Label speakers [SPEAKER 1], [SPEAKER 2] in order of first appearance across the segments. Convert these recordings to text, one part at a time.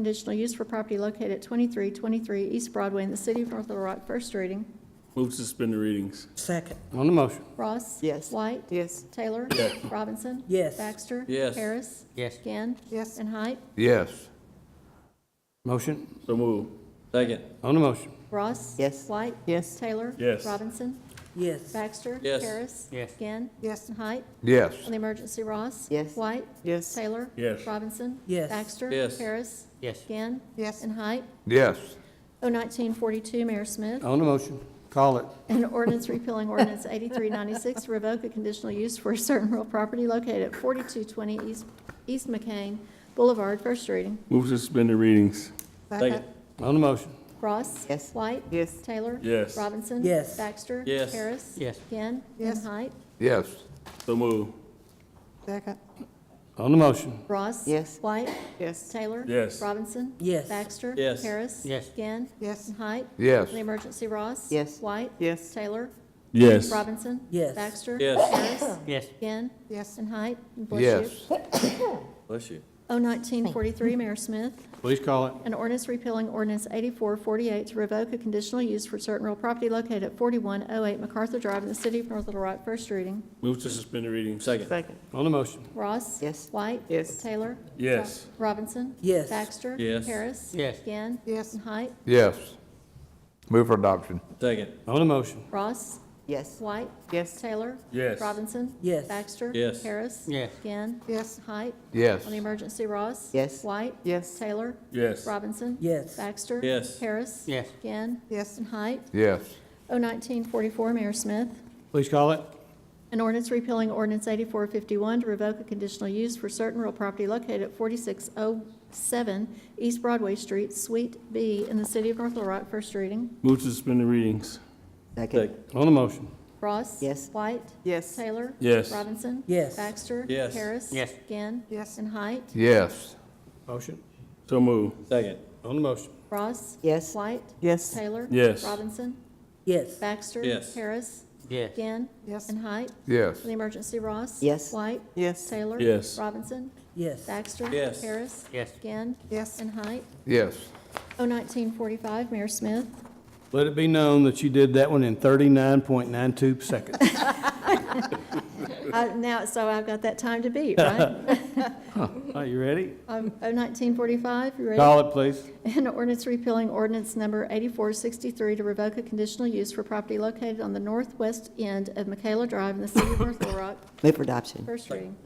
[SPEAKER 1] Conditional use for property located at 2323 East Broadway in the city of North Little Rock, first reading.
[SPEAKER 2] Move to suspend the readings.
[SPEAKER 3] Second.
[SPEAKER 4] On the motion,
[SPEAKER 1] Ross?
[SPEAKER 3] Yes.
[SPEAKER 1] White?
[SPEAKER 3] Yes.
[SPEAKER 1] Taylor? Robinson?
[SPEAKER 3] Yes.
[SPEAKER 1] Baxter?
[SPEAKER 2] Yes.
[SPEAKER 1] Harris?
[SPEAKER 4] Yes.
[SPEAKER 1] Ginn?
[SPEAKER 3] Yes.
[SPEAKER 1] And Height?
[SPEAKER 5] Yes.
[SPEAKER 4] motion,
[SPEAKER 2] So move. Second.
[SPEAKER 4] on the motion,
[SPEAKER 1] Ross?
[SPEAKER 3] Yes.
[SPEAKER 1] White?
[SPEAKER 3] Yes.
[SPEAKER 1] Taylor?
[SPEAKER 2] Yes.
[SPEAKER 1] Robinson?
[SPEAKER 3] Yes.
[SPEAKER 1] Baxter?
[SPEAKER 2] Yes.
[SPEAKER 1] Harris?
[SPEAKER 4] Yes.
[SPEAKER 1] Ginn?
[SPEAKER 3] Yes.
[SPEAKER 1] And Height?
[SPEAKER 5] Yes.
[SPEAKER 1] On the emergency, Ross?
[SPEAKER 3] Yes.
[SPEAKER 1] White?
[SPEAKER 3] Yes.
[SPEAKER 1] Taylor?
[SPEAKER 2] Yes.
[SPEAKER 1] Robinson?
[SPEAKER 3] Yes.
[SPEAKER 1] Baxter?
[SPEAKER 2] Yes.
[SPEAKER 1] Harris?
[SPEAKER 4] Yes.
[SPEAKER 1] Ginn?
[SPEAKER 3] Yes.
[SPEAKER 1] And Height?
[SPEAKER 5] Yes.
[SPEAKER 1] O nineteen forty-two, Mayor Smith.
[SPEAKER 4] on the motion, call it,
[SPEAKER 1] An ordinance repealing ordinance eighty-three ninety-six, revoke a conditional use for a certain real property located at forty-two twenty East, East McCain Boulevard, first reading.
[SPEAKER 2] Move to suspend the readings. Second.
[SPEAKER 4] on the motion,
[SPEAKER 1] Ross?
[SPEAKER 3] Yes.
[SPEAKER 1] White?
[SPEAKER 3] Yes.
[SPEAKER 1] Taylor?
[SPEAKER 2] Yes.
[SPEAKER 1] Robinson?
[SPEAKER 3] Yes.
[SPEAKER 1] Baxter?
[SPEAKER 2] Yes.
[SPEAKER 1] Harris?
[SPEAKER 4] Yes.
[SPEAKER 1] Ginn?
[SPEAKER 3] Yes.
[SPEAKER 1] And Height?
[SPEAKER 5] Yes.
[SPEAKER 2] So move.
[SPEAKER 3] Second.
[SPEAKER 4] on the motion,
[SPEAKER 1] Ross?
[SPEAKER 3] Yes.
[SPEAKER 1] White?
[SPEAKER 3] Yes.
[SPEAKER 1] Taylor?
[SPEAKER 2] Yes.
[SPEAKER 1] Robinson?
[SPEAKER 3] Yes.
[SPEAKER 1] Baxter?
[SPEAKER 2] Yes.
[SPEAKER 1] Harris?
[SPEAKER 4] Yes.
[SPEAKER 1] Ginn?
[SPEAKER 3] Yes.
[SPEAKER 1] And Height?
[SPEAKER 5] Yes.
[SPEAKER 1] On the emergency, Ross?
[SPEAKER 3] Yes.
[SPEAKER 1] White?
[SPEAKER 3] Yes.
[SPEAKER 1] Taylor?
[SPEAKER 2] Yes.
[SPEAKER 1] Robinson?
[SPEAKER 3] Yes.
[SPEAKER 1] Baxter?
[SPEAKER 2] Yes.
[SPEAKER 1] Harris?
[SPEAKER 4] yes,
[SPEAKER 1] Ginn?
[SPEAKER 3] Yes.
[SPEAKER 1] And Height? And bless you.
[SPEAKER 5] Yes.
[SPEAKER 2] Bless you.
[SPEAKER 1] O nineteen forty-three, Mayor Smith.
[SPEAKER 4] please call it,
[SPEAKER 1] An ordinance repealing ordinance eighty-four forty-eight to revoke a conditional use for certain real property located at forty-one oh eight MacArthur Drive in the city of North Little Rock, first reading.
[SPEAKER 2] Move to suspend the readings. Second.
[SPEAKER 3] Second.
[SPEAKER 4] on the motion,
[SPEAKER 1] Ross?
[SPEAKER 3] Yes.
[SPEAKER 1] White?
[SPEAKER 3] Yes.
[SPEAKER 1] Taylor?
[SPEAKER 2] Yes.
[SPEAKER 1] Ro- Robinson?
[SPEAKER 3] Yes.
[SPEAKER 1] Baxter?
[SPEAKER 2] Yes.
[SPEAKER 1] Harris?
[SPEAKER 4] Yes.
[SPEAKER 1] Ginn?
[SPEAKER 3] Yes.
[SPEAKER 1] And Height?
[SPEAKER 5] Yes. Move for adoption.
[SPEAKER 2] Second.
[SPEAKER 4] on the motion,
[SPEAKER 1] Ross?
[SPEAKER 3] Yes.
[SPEAKER 1] White?
[SPEAKER 3] Yes.
[SPEAKER 1] Taylor?
[SPEAKER 2] Yes.
[SPEAKER 1] Robinson?
[SPEAKER 3] Yes.
[SPEAKER 1] Baxter?
[SPEAKER 2] Yes.
[SPEAKER 1] Harris?
[SPEAKER 4] Yes.
[SPEAKER 1] Ginn?
[SPEAKER 3] Yes.
[SPEAKER 1] Height?
[SPEAKER 5] Yes.
[SPEAKER 1] On the emergency, Ross?
[SPEAKER 3] Yes.
[SPEAKER 1] White?
[SPEAKER 3] Yes.
[SPEAKER 1] Taylor?
[SPEAKER 2] Yes.
[SPEAKER 1] Robinson?
[SPEAKER 3] Yes.
[SPEAKER 1] Baxter?
[SPEAKER 2] Yes.
[SPEAKER 1] Harris?
[SPEAKER 4] Yes.
[SPEAKER 1] Ginn?
[SPEAKER 3] Yes.
[SPEAKER 1] And Height?
[SPEAKER 5] Yes.
[SPEAKER 1] O nineteen forty-four, Mayor Smith.
[SPEAKER 4] please call it,
[SPEAKER 1] An ordinance repealing ordinance eighty-four fifty-one to revoke a conditional use for certain real property located at forty-six oh seven East Broadway Street, Suite B, in the city of North Little Rock, first reading.
[SPEAKER 2] Move to suspend the readings.
[SPEAKER 3] Second.
[SPEAKER 4] on the motion,
[SPEAKER 1] Ross?
[SPEAKER 3] Yes.
[SPEAKER 1] White?
[SPEAKER 3] Yes.
[SPEAKER 1] Taylor?
[SPEAKER 2] Yes.
[SPEAKER 1] Robinson?
[SPEAKER 3] Yes.
[SPEAKER 1] Baxter?
[SPEAKER 2] Yes.
[SPEAKER 1] Harris?
[SPEAKER 4] Yes.
[SPEAKER 1] Ginn?
[SPEAKER 3] Yes.
[SPEAKER 1] And Height?
[SPEAKER 5] Yes.
[SPEAKER 4] motion,
[SPEAKER 2] So move. Second.
[SPEAKER 4] on the motion,
[SPEAKER 1] Ross?
[SPEAKER 3] Yes.
[SPEAKER 1] White?
[SPEAKER 3] Yes.
[SPEAKER 1] Taylor?
[SPEAKER 2] Yes.
[SPEAKER 1] Robinson?
[SPEAKER 3] Yes.
[SPEAKER 1] Baxter?
[SPEAKER 2] Yes.
[SPEAKER 1] Harris?
[SPEAKER 4] yes,
[SPEAKER 1] Ginn?
[SPEAKER 3] Yes.
[SPEAKER 1] And Height?
[SPEAKER 5] Yes.
[SPEAKER 1] For the emergency, Ross?
[SPEAKER 3] Yes.
[SPEAKER 1] White?
[SPEAKER 3] Yes.
[SPEAKER 1] Taylor?
[SPEAKER 2] Yes.
[SPEAKER 1] Robinson?
[SPEAKER 3] Yes.
[SPEAKER 1] Baxter?
[SPEAKER 2] Yes.
[SPEAKER 1] Harris?
[SPEAKER 4] yes,
[SPEAKER 1] Ginn?
[SPEAKER 3] Yes.
[SPEAKER 1] And Height?
[SPEAKER 5] Yes.
[SPEAKER 1] O Oh, nineteen forty-five, Mayor Smith.
[SPEAKER 4] let it be known that you did that one in thirty-nine point nine two seconds,
[SPEAKER 1] Uh, Now, so I've got that time to beat, right?
[SPEAKER 4] are you ready?
[SPEAKER 1] Um, O nineteen forty-five, you ready?
[SPEAKER 4] Call it, please,
[SPEAKER 1] An ordinance repealing ordinance number eighty-four sixty-three to revoke a conditional use for property located on the northwest end of Michaela Drive in the city of North Little Rock.
[SPEAKER 3] Move for adoption.
[SPEAKER 1] First reading.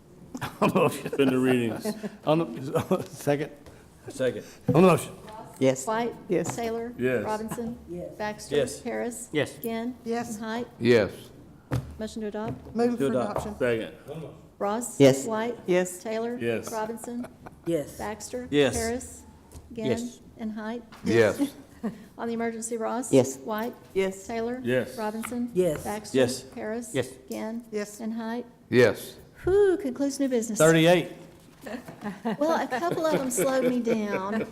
[SPEAKER 4] on the motion,
[SPEAKER 2] Suspend the readings.
[SPEAKER 4] on the, second,
[SPEAKER 2] Second.
[SPEAKER 4] on the motion,
[SPEAKER 3] Yes.
[SPEAKER 1] White?
[SPEAKER 3] Yes.
[SPEAKER 1] Taylor?
[SPEAKER 2] Yes.
[SPEAKER 1] Robinson?
[SPEAKER 3] Yes.
[SPEAKER 1] Baxter?
[SPEAKER 2] Yes.
[SPEAKER 1] Harris?
[SPEAKER 4] Yes.
[SPEAKER 1] Ginn?
[SPEAKER 3] Yes.
[SPEAKER 1] And Height?
[SPEAKER 5] Yes.
[SPEAKER 1] Motion to adopt.
[SPEAKER 3] Move
[SPEAKER 2] To adopt. Second.
[SPEAKER 1] Ross?
[SPEAKER 3] Yes.
[SPEAKER 1] White?
[SPEAKER 3] Yes.
[SPEAKER 1] Taylor?
[SPEAKER 2] Yes.
[SPEAKER 1] Robinson?
[SPEAKER 3] Yes.
[SPEAKER 1] Baxter?
[SPEAKER 2] Yes.
[SPEAKER 1] Harris? Ginn?
[SPEAKER 4] Yes.
[SPEAKER 1] And Height?
[SPEAKER 5] Yes.
[SPEAKER 1] On the emergency, Ross?
[SPEAKER 3] Yes.
[SPEAKER 1] White?
[SPEAKER 3] Yes.
[SPEAKER 1] Taylor?
[SPEAKER 2] Yes.
[SPEAKER 1] Robinson?
[SPEAKER 3] Yes.
[SPEAKER 1] Baxter?
[SPEAKER 2] Yes.
[SPEAKER 1] Harris?
[SPEAKER 4] Yes.
[SPEAKER 1] Ginn?
[SPEAKER 3] Yes.
[SPEAKER 1] And Height?
[SPEAKER 5] Yes.
[SPEAKER 1] Whew, concludes new business.
[SPEAKER 4] thirty-eight,
[SPEAKER 1] Well, a couple of them slowed me down.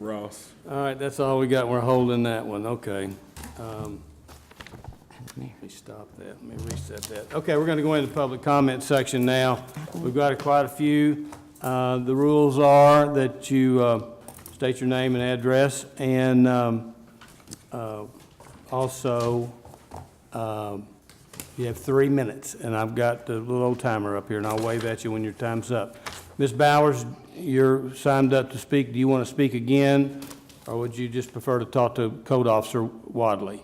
[SPEAKER 2] Ross.
[SPEAKER 4] all right, that's all we got, we're holding that one, okay. Um, Let me stop that, let me reset that. Okay, we're going to go into the public comment section now. We've got quite a few. Uh, The rules are that you uh, state your name and address, and um, uh, also, um, you have three minutes, and I've got the little old timer up here, and I'll wave at you when your time's up. Ms. Bowers, you're signed up to speak, do you want to speak again, or would you just prefer to talk to Code Officer Wadley?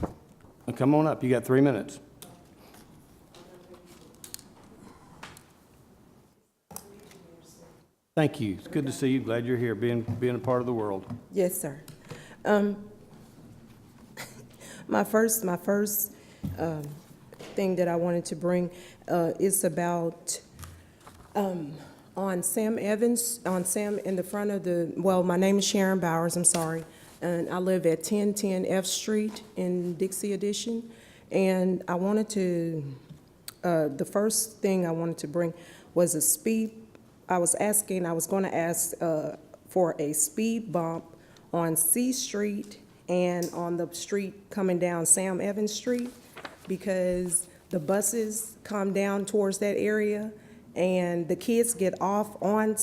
[SPEAKER 4] Well, Come on up, you got three minutes. Thank you, it's good to see you, glad you're here, being, being a part of the world.
[SPEAKER 6] Yes, sir. Um, my first, my first, um, thing that I wanted to bring, uh, is about, um, on Sam Evans, on Sam in the front of the, well, my name is Sharon Bowers, I'm sorry. And I live at ten ten F Street in Dixie Edition. And I wanted to, uh, the first thing I wanted to bring was a speed, I was asking, I was going to ask uh, for a speed bump on C Street and on the street coming down Sam Evans Street, because the buses come down towards that area, and the kids get off on